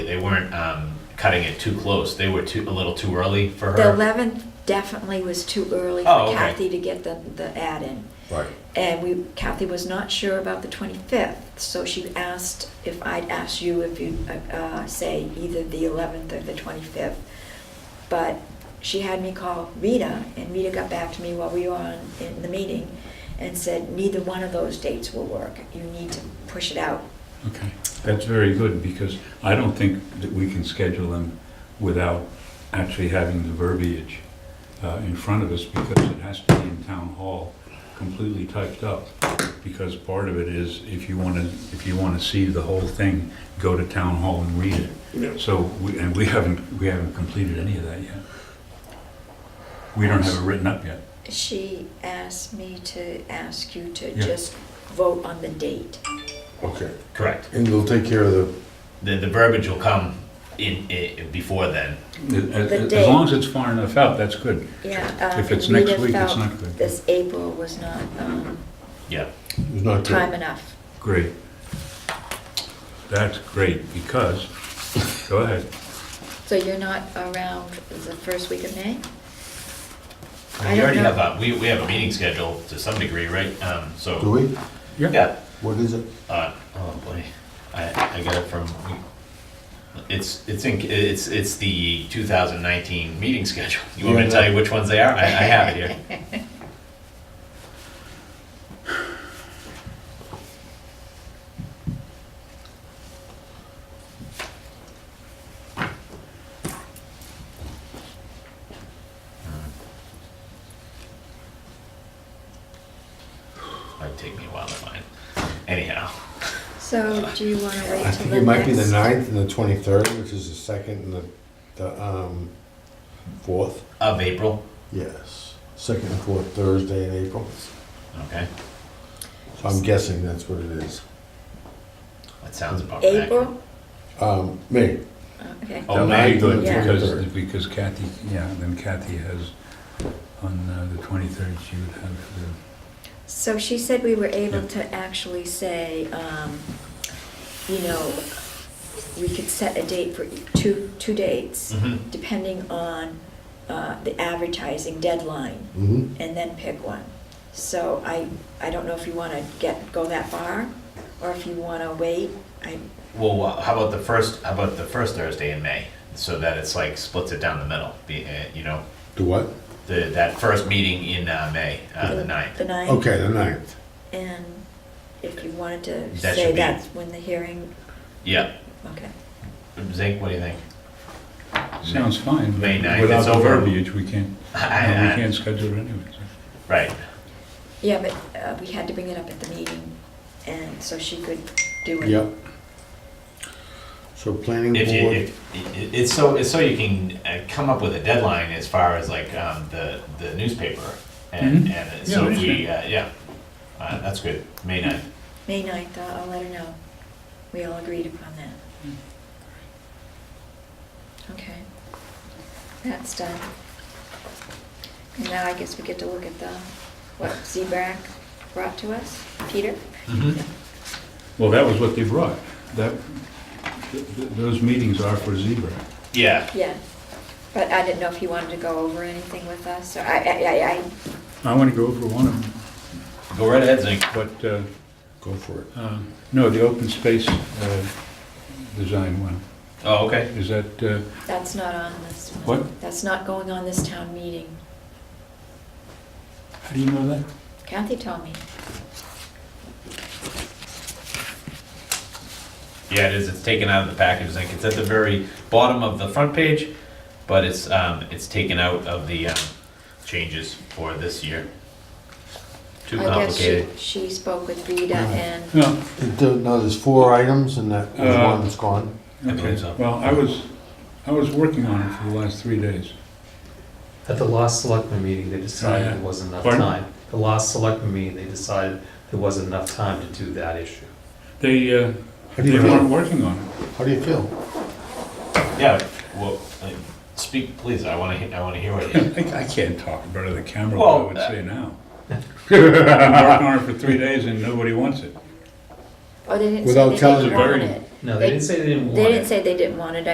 They weren't um, cutting it too close. They were too, a little too early for The her. 11th definitely was too early Oh, for okay. Kathy to get the, the ad in. Right. And we, Kathy was not sure about the 25th, so she asked if I'd ask you if you'd uh, uh, say either the 11th or the 25th. But she had me call Rita, and Rita got back to me while we were on, in the meeting, and said, neither one of those dates will work. You need to push it out. Okay, that's very good, because I don't think that we can schedule them without actually having the verbiage uh, in front of us, because it has to be in town hall, completely typed up. Because part of it is, if you want to, if you want to see the whole thing, go to town hall and read Yeah. it. So, we- and we haven't, we haven't completed any of that yet. We don't have it written up yet. She asked me to ask you to Yeah. just vote on the date. Okay, Correct. and we'll take care of the, The, the verbiage will come in, i before then. As- As date. as long as it's far enough out, that's good. Yeah. um, If it's and next Rita week, it's felt not good. This April was not um, Yeah. it's not time good. enough. Great. That's great, because, go ahead. So you're not around the first week of May? I we don't already know. have a we, we have a meeting scheduled to some degree, right? Um, so Do we? yeah. What is it? Uh, oh boy, I, I got it from. It's it's in, it's it's the 2019 meeting schedule. You want me to tell you which ones they are? I, I have it here. Hmm. Might take me a while to find. Anyhow, So do you want to wait till the next? I think it might be the ninth and the twenty-third, which is the second and the, the, um, fourth. of April. Yes, second and fourth Thursday in April. Okay, So I'm guessing that's what it is. that sounds about right. April? Um, May, Oh, Okay. Oh, That would be May. good, Yeah. Because, because Kathy, yeah, then Kathy has, on uh, the 23rd, she would have the, So she said we were able to actually say, um, you know, we could set a date for e, two, two dates, Mhm. depending on uh, the advertising deadline, mm-hmm, and then pick one. So I, I don't know if you want to get, go that far, or if you want to wait. I, Well, uh, how about the first? How about the first Thursday in May, so that it's like splits it down the middle. Be, uh, you know, the what? the that first meeting in uh, May, uh, the 9th. The ninth. Okay, the ninth. And if you wanted to That should say be- that's when the hearing, Yeah, okay. Zink, what do you think? sounds fine. but May 9th, Without it's the over. verbiage, we can't, I- no, we I- can't schedule it anyway. so. Right. Yeah, but uh, we had to bring it up at the meeting, and so she could do it. Yep. So planning If you, board, if, it- it's so it's so you can uh, come up with a deadline as far as like um, the the newspaper, and, Mhm. and Yeah, so if we newspaper. uh, yeah, uh, that's good. May 9th. May ninth, I'll let her know. We all agreed upon that. Okay. That's done. And now I guess we get to look at the, what ZBRAC brought to us. Peter? Mm-hmm. Well, that was what they brought. That, th- th- those meetings are for zebra. Yeah. Yeah. But I didn't know if he wanted to go over anything with us, or I, I, I, I want to go over one of them, Go right ahead, Zink. but, uh, go for it. uh, no, the open space uh, design one. Oh, okay. Is that, uh, That's not on this one. What? That's not going on this town meeting. how do you know that? Kathy told me. Yeah, it is. It's taken out of the package, Zink. It's at the very bottom of the front page, but it's um, it's taken out of the um, changes for this year. Too I complicated. guess she, she spoke with Rita and, No, No, there's four items and that there's Uh, one that's gone. I believe Okay, so. well, I was, I was working on it for the last three days. At the last selectman meeting, they decided Yeah. there wasn't enough Pardon? time. The last selectman meeting, they decided there wasn't enough time to do that issue. They, uh, How do they you weren't feel? working on it. How do you feel? Yeah. Well, uh, speak, please. I want to. I want to hear what you. I, I can't talk in front of the camera, Well, what I would say now. I've been working on it for three days and nobody wants it. oh, they didn't say Without they telling didn't her. want it. No, they didn't say they didn't want it. They didn't say they didn't want it,